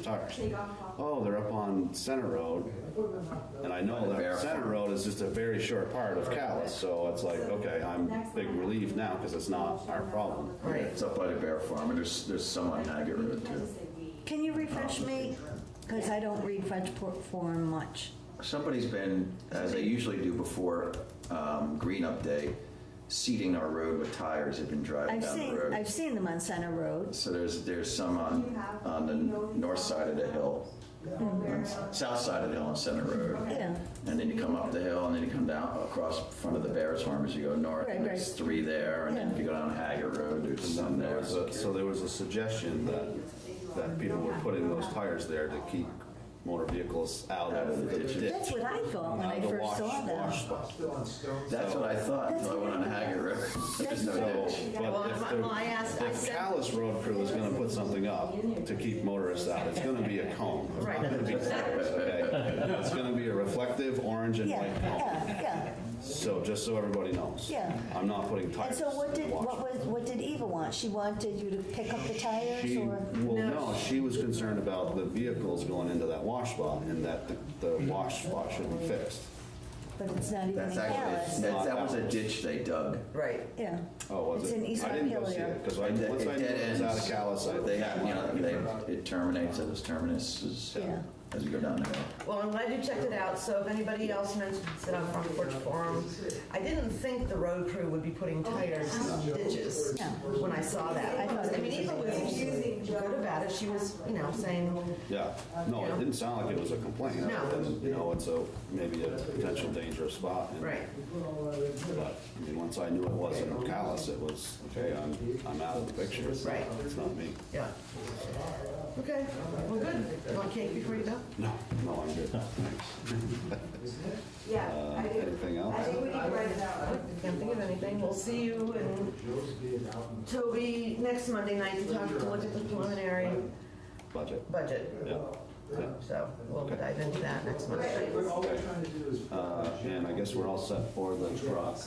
sorry. They got caught. Oh, they're up on Center Road, and I know that Center Road is just a very short part of Callis, so it's like, okay, I'm big relief now, because it's not our problem. Yeah, It's up by the bear farm, and there's, there's some on Haggard Road too. Can you refresh me? Because I don't read French por- form much. Somebody's been, as they usually do before um, Green Up Day, seeding our road with tires, they've been driving I've down the seen, road. I've seen them on Center Road. So there's, there's some on, on the north side of the hill, on s- south side of the hill on Center Road. Yeah, And then you come up the hill, and then you come down across front of the Bears Farm as you go north, and Right, there's right. three there, and then if you go down Haggard Road, there's some There there. was a, so there was a suggestion that, that people were putting those tires there to keep motor vehicles out of the ditch. that's what I thought when out I of the first wash- saw them. wash spot. That's what I thought, until I went on Haggard Road. There's no So, ditch. but if Well, I asked- the, I if said- Callis Road Crew is gonna put something up to keep motorists out, it's gonna be a cone. It's not gonna be tires, okay? It's gonna be a reflective orange and Yeah, white cone. yeah, yeah. So, just so everybody knows. Yeah. I'm not putting And tires so what in did, the wash. what was, what did Eva want? She wanted you to pick up the tires She, or? well, no, she was concerned about the vehicles going into that wash spot and that the, the wash spot should be fixed. But it's not even in That's actually, that, Callis. that was a ditch they dug. Right. Yeah. Oh, was it? It's in East I didn't go see Montpelier. it, because I, It once I knew it dead was out ends. of Callis, I. They have, you know, they, it terminates at its terminus as, Yeah. as you go down the hill. Well, I'm glad you checked it out, so if anybody else mentions it on Front Porch Forum, I didn't think the road crew would be putting tires in ditches No. when I saw I that. thought I mean, it Eva was- was good about it, she was, you know, saying, Yeah, no, it didn't sound like it was a complaint. No. other than, You know, it's a, maybe a potential dangerous spot. and- right, But, I mean, once I knew it wasn't callous, it was, okay, I'm, I'm out of the picture. It's- Right. It's not me. yeah. Okay, well, good. Want cake before you go? No, no, I'm good, thanks. Yeah, Uh, I do. Anything I else? think we need to write it out. Can't think of anything, we'll see you and Toby next Monday night to talk, to look at the preliminary Budget, budget. yeah. yeah. So we'll dive into that next Monday. Uh, And I guess we're all set for the truck.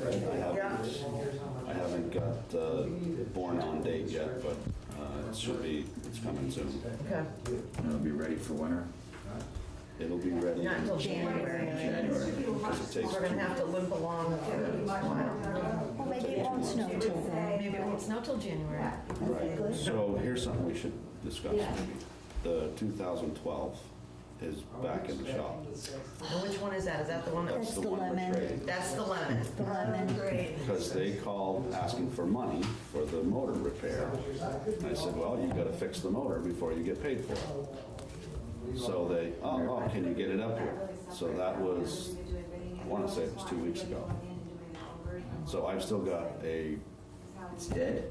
I haven't, I haven't got the born on date yet, but uh, it should be, it's coming soon. Okay, And it'll be ready for winter, It'll be ready. not until Because January. January. it takes We're gonna two, have to limp along for a while. Well, maybe it won't snow till then. Maybe it won't snow till January. right. So here's something we should discuss maybe. The 2012 is back in the shop. And which one is that? Is that the one that, That's That's the the one we're lemon. trading. that's the lemon? The lemon. Great. Because they called asking for money for the motor repair. And I said, well, you gotta fix the motor before you get paid for it. So they, oh, oh, can you get it up here? So that was, I wanna say it was two weeks ago. So I've still got a, it's dead.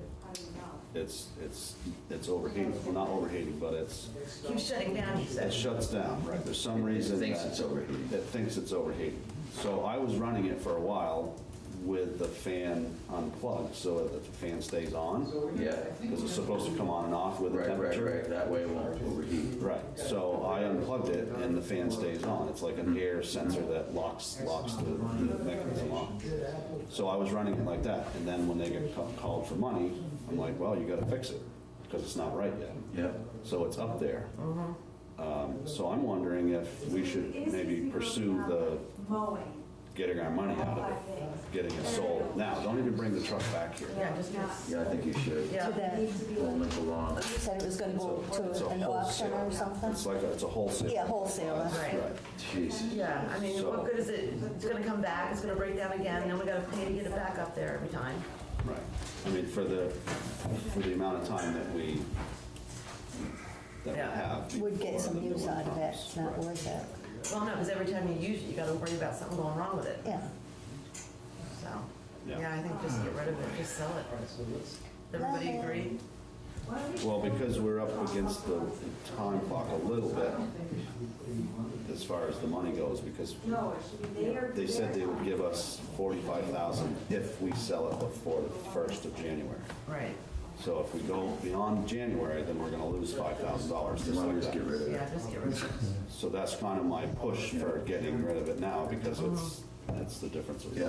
it's, it's, it's overheating, well, not overheating, but it's, Keeps shutting down, he it said. shuts down, right? There's some reason It that. thinks it's overheating. That thinks it's overheating. So I was running it for a while with the fan unplugged, so that the fan stays on. Yeah, because it's supposed to come on and off with the right, right, temperature. right, that way it won't overheat. Right. so I unplugged it and the fan stays on. It's like an air sensor that locks, locks the the mechanism on. So I was running it like that, and then when they get ca- called for money, I'm like, well, you gotta fix it, because it's not right yet. Yeah, So it's up there. Um, So I'm wondering if we should maybe pursue the Mowing. getting our money out of it, getting it sold. Now, don't even bring the truck back here. Yeah, just, yeah, I think you should. yeah. To the, Won't live along. you said it was gonna go It's a to an auction wholesale. or something? It's like, a- it's a wholesale. Yeah, wholesaler. Right. Right. Jeez. Yeah, I mean, what good is it? It's gonna come back, it's gonna break down again, then we gotta pay to get it back up there every time. Right. I mean, for the, for the amount of time that we, that we Yeah. have. Would get before the some new use one out of it, comes. it's not Right. worth it. Well, no, because every time you use it, you gotta worry about something going wrong with it, Yeah. so. Yeah. Yeah, I think just get rid of it, just sell it. Everybody agree? Well, because we're up against the time clock a little bit as far as the money goes, because No, it should be there. they said they would give us forty-five thousand if we sell it before the first of January. Right, So if we go beyond January, then we're gonna lose five thousand dollars, just like Get that. rid of it. yeah, just get rid of it. So that's kind of my push for getting rid of it now, because it's, That's the difference. Yeah.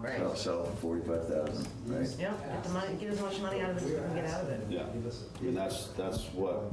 Right. I'll sell for 45,000, right? Yep, get the money, get as much money out of it as we can get out of it. Yeah, I mean, that's, that's what